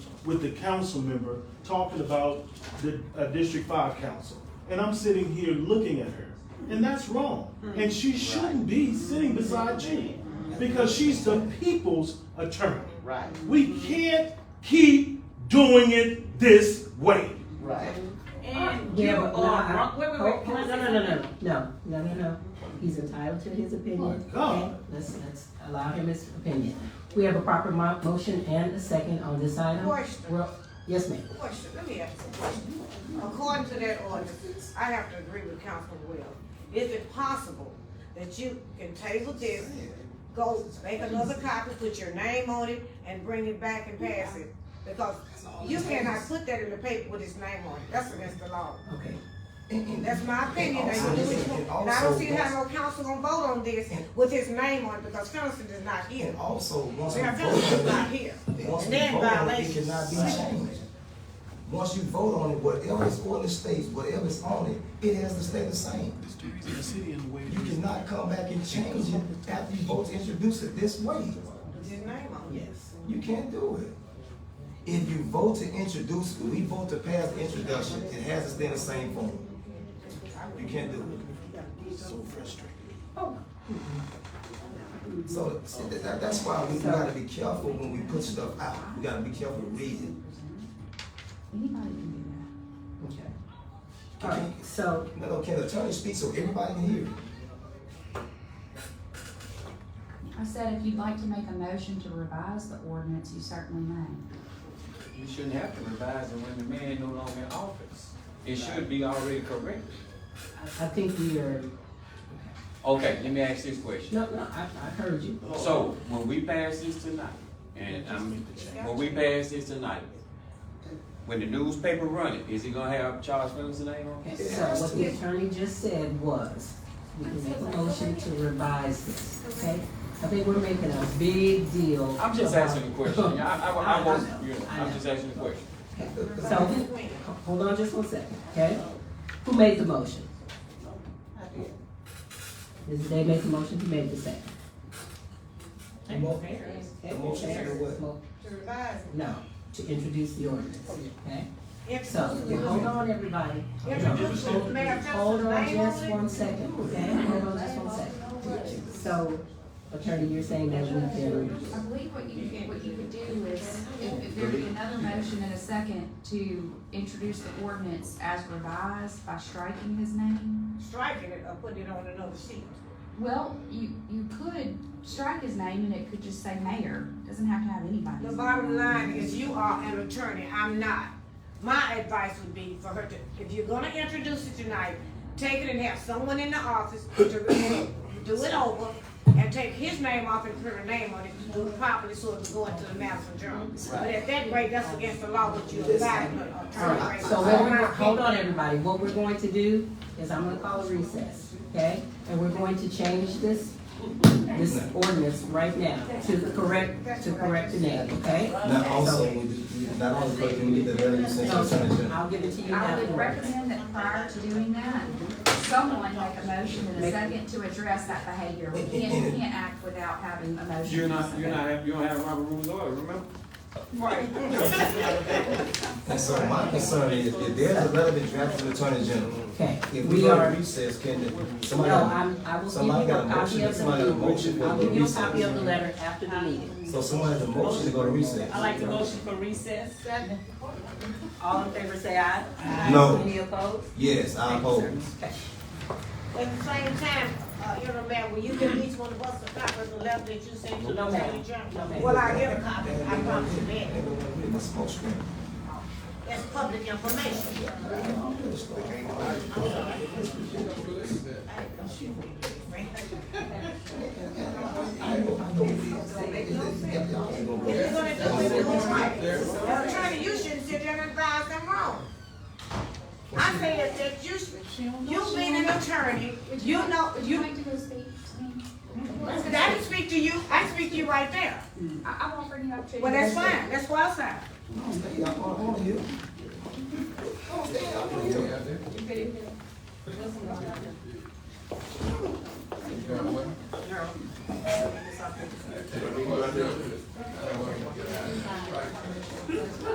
with the council member talking about the uh, District Five council. And I'm sitting here looking at her, and that's wrong. And she shouldn't be sitting beside you, because she's the people's attorney. Right, We can't keep doing it this way. right. And you Yeah, are but no, I- wrong. Wait, wait, wait. Oh, Can I oh, say No, no, no, no, no, no, no, no. He's entitled to his My opinion. God. Okay, Let's, let's allow him his opinion. We have a proper mo- motion and a second on this item. Question. Well, Yes, ma'am. Question, let me ask a question. According to that ordinance, I have to agree with Councilman Wells. Is it possible that you can table this, go make another copy, put your name on it, and bring it back and pass it? Because you cannot put that in the paper with his name on it. That's against the law. Okay. That's my opinion. Now, you do what you want. And I don't see how no council gonna vote on this with his name on it because Conniston is not here. And also, once we Mayor vote Conniston is not on here. it, once we They're in vote on it, it violation. cannot be changed. Once you vote on it, whatever is on the states, whatever is on it, it has to stay the same. You cannot come back and change it after you vote to introduce it this way. With his name on it. Yes. You can't do it. If you vote to introduce, if we vote to pass the introduction, it has to stay in the same form. You can't do it. So frustrating. So, so that- that- that's why we we gotta be careful when we put stuff out. We gotta be careful reading. Anybody can do that. Okay. All right, so, No, no, can the attorney speak so everybody can hear? I said, if you'd like to make a motion to revise the ordinance, you certainly may. You shouldn't have to revise it when the man no longer in office. It should be already corrected. I I think we are, Okay, let me ask this question. no, no, I, I heard you. So, when we pass this tonight, and I'm, when we pass this tonight, when the newspaper running, is it gonna have Charles Phillips' name on it? So what the attorney just said was, we can make a motion to revise this, okay? I think we're making a big deal. I'm just about- asking a question. Yeah, I, I, I was, you know, I know. I'm just asking a question. So, hold on just one second, okay? Who made the motion? Mrs. Day made the motion, who made the second? The mo- Okay, motion to do what? mo- To revise it. No, to introduce the ordinance, okay? If- So, hold on, everybody. Introduce it. Mayor Hold Councilman's on name just on it. one second, okay? Hold on just one second. So, attorney, you're saying that we can, I believe what you, what you could do is, if if there'd be another motion in a second to introduce the ordinance as revised by striking his name. Striking it or putting it on another sheet. Well, you, you could strike his name and it could just say mayor, doesn't have to have anybody's. The name. bottom line is you are an attorney, I'm not. My advice would be for her to, if you're gonna introduce it tonight, take it and have someone in the office to review, do it over, and take his name off and put her name on it, do it properly so it can go into the master journal. But at that rate, that's against the law, what you advise an attorney. rate. Alright, so what we're, hold on, everybody, what we're going to do is I'm gonna call a recess, okay? And we're going to change this, this ordinance right now to correct, to correct the name, okay? Not also, we- we- not only because we need the value since the attorney So, general. I'll give it to you I now. would recommend that prior to doing that, someone make a motion in a second to address that behavior. We can't, we can't act without having a motion. You're not, you're not, have- you don't have Robert Rules order, remember? And so my concern is, if there's a letter been drafted to the attorney general, Okay, if we we go are, to recess, can the- no, somebody? I'm, I will give you somebody a got a copy motion, of the, somebody got a motion for I'll give you a copy of the recess. letter after the meeting. So someone has a motion to go to recess? the motion for recess. All in favor, say aye. No. Any opposed? Yes, I oppose. Okay. At the same time, uh, you know, ma'am, will you give each one of us a copy of the letter that you sent to the No, ma'am. attorney No, general? ma'am. Well, I get a copy, I promise you that. That's motion. That's public information. If you're gonna do it, do it right. Now, attorney, you shouldn't sit there and advise them wrong. I said that you, should- you being an attorney, you know, Would you you, like to go speak to me? I didn't speak to you, I speak to you right there. I, I'm offering you opportunity. Well, that's fine, that's well said. I don't wanna hear.